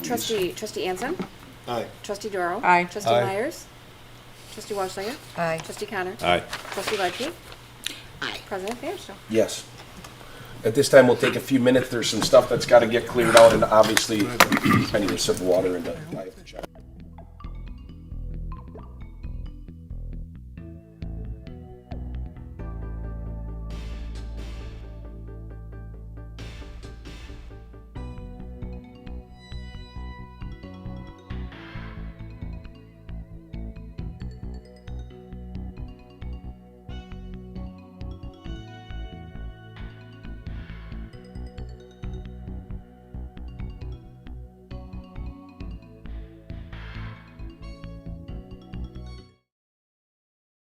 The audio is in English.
Trustee, trustee Anson? Aye. Trustee Doro? Aye. Trustee Aye. Myers? Trustee Walshiger? Aye. Trustee Connor? Aye. Trustee Ledke? Aye. President Vanderstel? Yes. At this time, we'll take a few minutes. There's some stuff that's got to get cleared out, and obviously, I need some water and I have to check.